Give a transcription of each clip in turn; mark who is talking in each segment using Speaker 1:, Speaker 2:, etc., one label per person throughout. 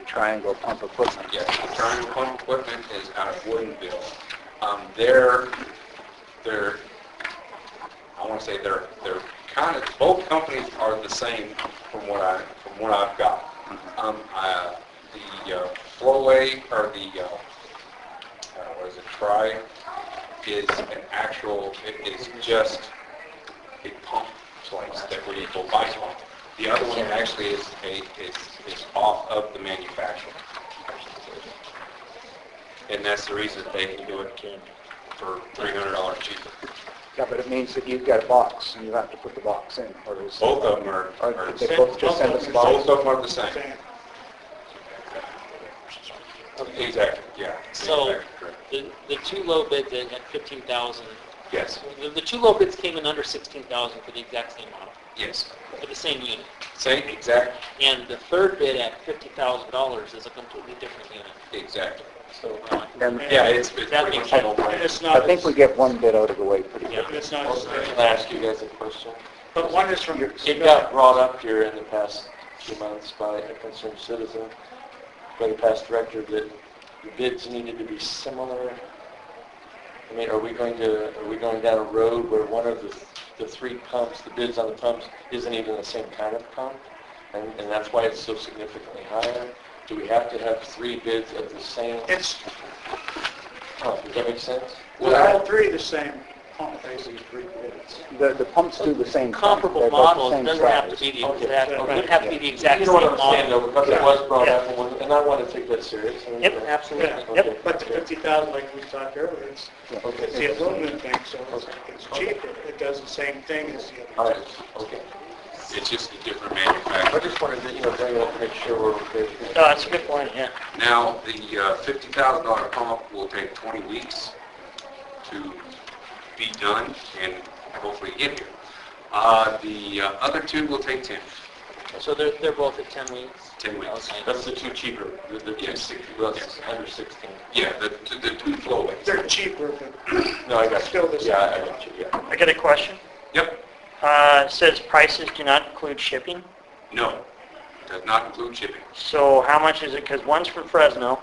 Speaker 1: Triangle Pump Equipment.
Speaker 2: Yes, Triangle Pump Equipment is out of Woodenville. Um, They're, they're, I want to say they're, they're kind of, both companies are the same from what I, from what I've got. Um, uh, The uh, Flowway, or the, uh, uh, what is it, Tri, is an actual, it is just a pump place that where you go buy pump. The other one actually is a, is, is off of the manufacturer. And that's the reason they can do it for three hundred dollars cheaper.
Speaker 1: Yeah, but it means that you've got a box and you have to put the box in, or it's...
Speaker 2: Both of them are,
Speaker 1: Or
Speaker 2: are
Speaker 1: they
Speaker 2: the
Speaker 1: both just send us a box?
Speaker 2: both of them are the same. Exactly, yeah.
Speaker 3: So
Speaker 2: Exactly correct.
Speaker 3: the, the two low bids at at 15,000,
Speaker 2: Yes,
Speaker 3: the, the two low bids came in under 16,000 for the exact same model,
Speaker 2: yes.
Speaker 3: for the same unit.
Speaker 2: Same, exact,
Speaker 3: And the third bid at $50,000 is a completely different unit.
Speaker 2: exactly.
Speaker 3: So, uh,
Speaker 1: And
Speaker 2: Yeah, it's, it's
Speaker 3: That
Speaker 2: pretty
Speaker 3: makes
Speaker 2: much a no-brainer.
Speaker 4: And it's
Speaker 1: I
Speaker 4: not,
Speaker 1: think we
Speaker 4: and
Speaker 1: get one bid out of the way pretty
Speaker 3: yeah.
Speaker 1: quick.
Speaker 4: it's not,
Speaker 5: Can I ask you guys a question?
Speaker 4: but one is from,
Speaker 5: It got brought up here in the past few months by a concerned citizen, by the past director, that the bids needed to be similar. I mean, are we going to, are we going down a road where one of the, the three pumps, the bids on the pumps, isn't even the same kind of pump? And, and that's why it's so significantly higher? Do we have to have three bids of the same
Speaker 4: it's,
Speaker 5: pump? Does that make sense?
Speaker 4: they're all three the same, pump, basically, three bids.
Speaker 1: The, the pumps do the same thing.
Speaker 3: Comparable
Speaker 1: They're both
Speaker 3: models,
Speaker 1: the same
Speaker 3: doesn't have to
Speaker 1: size.
Speaker 3: be the
Speaker 5: Okay.
Speaker 3: exact, or would have to be the exact
Speaker 5: You
Speaker 3: same
Speaker 5: know what I'm saying,
Speaker 3: model.
Speaker 5: though, because it was brought
Speaker 4: Yeah.
Speaker 5: up, and we- and I want to take that serious. I mean,
Speaker 3: Yep,
Speaker 5: uh,
Speaker 3: absolutely.
Speaker 4: Yeah.
Speaker 5: Yep.
Speaker 4: But the 50,000, like we talked earlier, it's,
Speaker 5: Okay.
Speaker 4: it's the aluminum thing, so it's- it's cheaper, it does the same thing as the other.
Speaker 5: All right, okay.
Speaker 2: It's just a different
Speaker 5: I
Speaker 2: manufacturer.
Speaker 5: just wanted to, you know, bring it up, make sure we're okay. with
Speaker 3: No,
Speaker 5: that.
Speaker 3: that's a good point, yeah.
Speaker 2: Now, the uh, $50,000 pump will take 20 weeks to be done and hopefully get here. Uh, The uh, other two will take 10,
Speaker 3: So they're, they're both at 10 weeks?
Speaker 2: 10 weeks.
Speaker 3: Okay.
Speaker 5: That's the two cheaper, the, the two
Speaker 2: Yes.
Speaker 5: sixty, that's
Speaker 2: Yes.
Speaker 5: under sixteen.
Speaker 2: Yeah, the the- the two flowways.
Speaker 4: They're cheaper, but
Speaker 5: No, I got
Speaker 4: Still
Speaker 5: you.
Speaker 4: the same.
Speaker 5: Yeah, I I got you, yeah.
Speaker 6: I got a question.
Speaker 2: Yep,
Speaker 6: Uh, it says prices do not include shipping.
Speaker 2: no, does not include shipping.
Speaker 6: So how much is it? Because one's from Fresno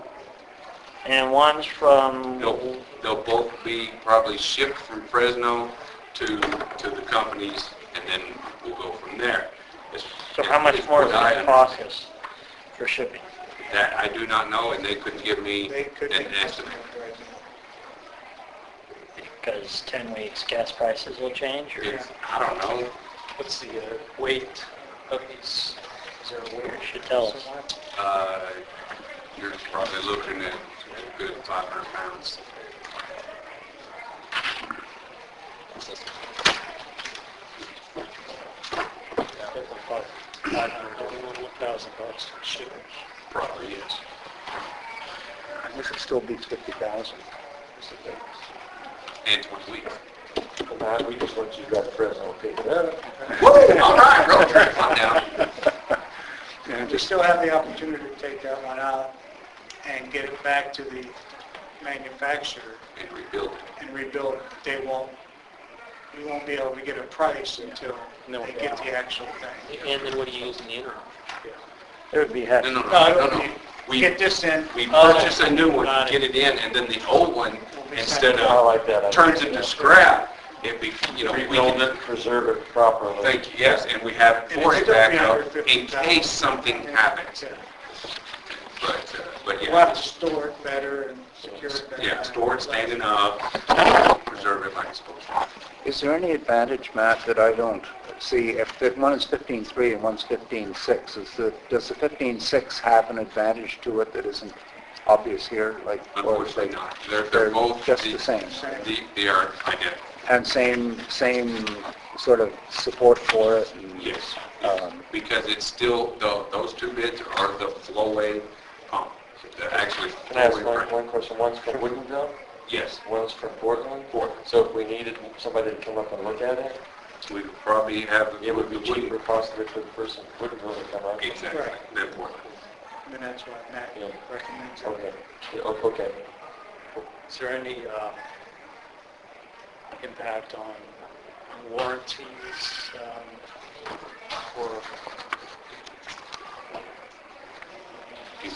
Speaker 6: and one's from...
Speaker 2: They'll, they'll both be probably shipped from Fresno to, to the companies, and then we'll go from there. It's-
Speaker 6: So how much
Speaker 2: it's
Speaker 6: more does
Speaker 2: what I
Speaker 6: it cost us for shipping?
Speaker 2: That I do not know, and they couldn't give me
Speaker 4: they could be.
Speaker 2: an estimate.
Speaker 6: Because 10 weeks gas prices will change or...
Speaker 2: It's, I don't know.
Speaker 3: What's the uh, weight of these? Is there a weight?
Speaker 6: You should tell us.
Speaker 2: Uh, you're probably looking at a good 500 pounds. Probably, yes.
Speaker 1: I guess it still beats 50,000.
Speaker 2: And 20 weeks.
Speaker 5: Well, now, Uh, we just want you to grab Fresno, okay? Uh,
Speaker 2: Woo! All right, road trip, I'm down.
Speaker 1: And
Speaker 4: We
Speaker 1: just,
Speaker 4: still have the opportunity to take that one out and get it back to the manufacturer
Speaker 2: And rebuild it.
Speaker 4: and rebuild it. They won't, we won't be able to get a price until
Speaker 3: No.
Speaker 4: they get the actual thing.
Speaker 3: And then what do you use in the interim?
Speaker 6: It would be heck.
Speaker 2: No, no,
Speaker 4: No, it
Speaker 2: no,
Speaker 4: would
Speaker 2: no,
Speaker 4: be-
Speaker 2: no. We,
Speaker 4: Get this in,
Speaker 2: we
Speaker 3: Oh,
Speaker 2: purchase a new one,
Speaker 3: got it.
Speaker 2: get it in, and then the old one, instead
Speaker 5: I
Speaker 2: of,
Speaker 5: like that. I
Speaker 2: turns
Speaker 5: like
Speaker 2: into
Speaker 5: that.
Speaker 2: scrap. It be, you know, we
Speaker 5: Rebuild
Speaker 2: can
Speaker 5: it, preserve it properly.
Speaker 2: Thank you, yes, and we have
Speaker 4: And
Speaker 2: for it
Speaker 4: it's still
Speaker 2: back up
Speaker 4: 350,000.
Speaker 2: in case something happens. But, uh, but
Speaker 4: we'll have
Speaker 2: yeah,
Speaker 4: to store it better and secure it better.
Speaker 2: yeah, store it standing up, preserve it like it's supposed to.
Speaker 1: is there any advantage, Matt, that I don't see? If that one is 15.3 and one's 15.6, is the, does the 15.6 have an advantage to it that isn't obvious here? Like, or is
Speaker 2: Unfortunately
Speaker 1: it-
Speaker 2: not. They're, they're both.
Speaker 1: just the same.
Speaker 2: the- They are identical,
Speaker 1: And same, same sort of support for it? and,
Speaker 2: yes.
Speaker 1: um,
Speaker 2: Because it's still, tho- those two bids are the flowway pump. They're actually.
Speaker 5: Can I ask
Speaker 2: flowway
Speaker 5: one,
Speaker 2: brand.
Speaker 5: one question? One's from Woodinville,
Speaker 2: Yes,
Speaker 5: one's from Portland.
Speaker 2: Portland.
Speaker 5: So if we needed somebody to come up and look at it,
Speaker 2: we would probably have.
Speaker 5: it would be cheaper possibly for the person from Woodinville to come up.
Speaker 2: Exactly,
Speaker 4: Right.
Speaker 2: than Portland.
Speaker 4: And that's why Matt
Speaker 5: Yeah.
Speaker 4: recommends it.
Speaker 5: Okay, Yeah, o- okay.
Speaker 7: Is there any uh,
Speaker 4: um,
Speaker 7: impact on warranties um, or